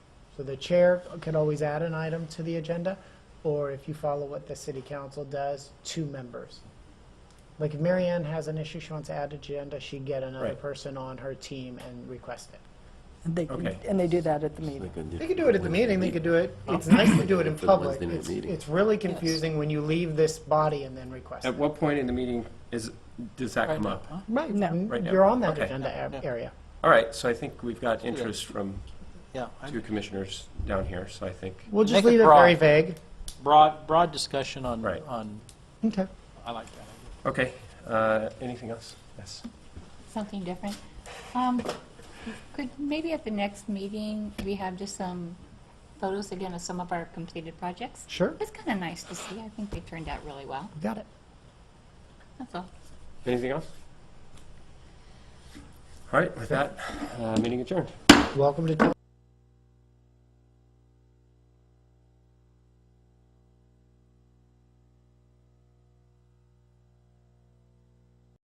So the chair can always add an item to the agenda, or if you follow what the city council does, two members. Like if Mary Ann has an issue she wants to add to agenda, she'd get another Right. person on her team and request it. And they, Okay. and they do that at the meeting. They could do it at the meeting, they could do it, it's nice to do it in For the public. Wednesday night It's- meeting. It's really confusing when you leave this body and then request At it. what point in the meeting is, does that come up? Right, Mm-hmm. No. Right now. you're on that Okay. agenda a- area. All right, so I think we've got interest from Yeah, I- two commissioners down here, so I think, We'll just Make it leave it very broad. vague. broad, broad discussion on, Right. on, Okay. I like that. okay, uh, anything else? Yes. something different. Um, Could, maybe at the next meeting, we have just some photos again of some of our completed projects? Sure. It's kind of nice to see. I think they turned out really well. Got it. That's all. Anything else? All right, with that, uh, meeting adjourned. Welcome to.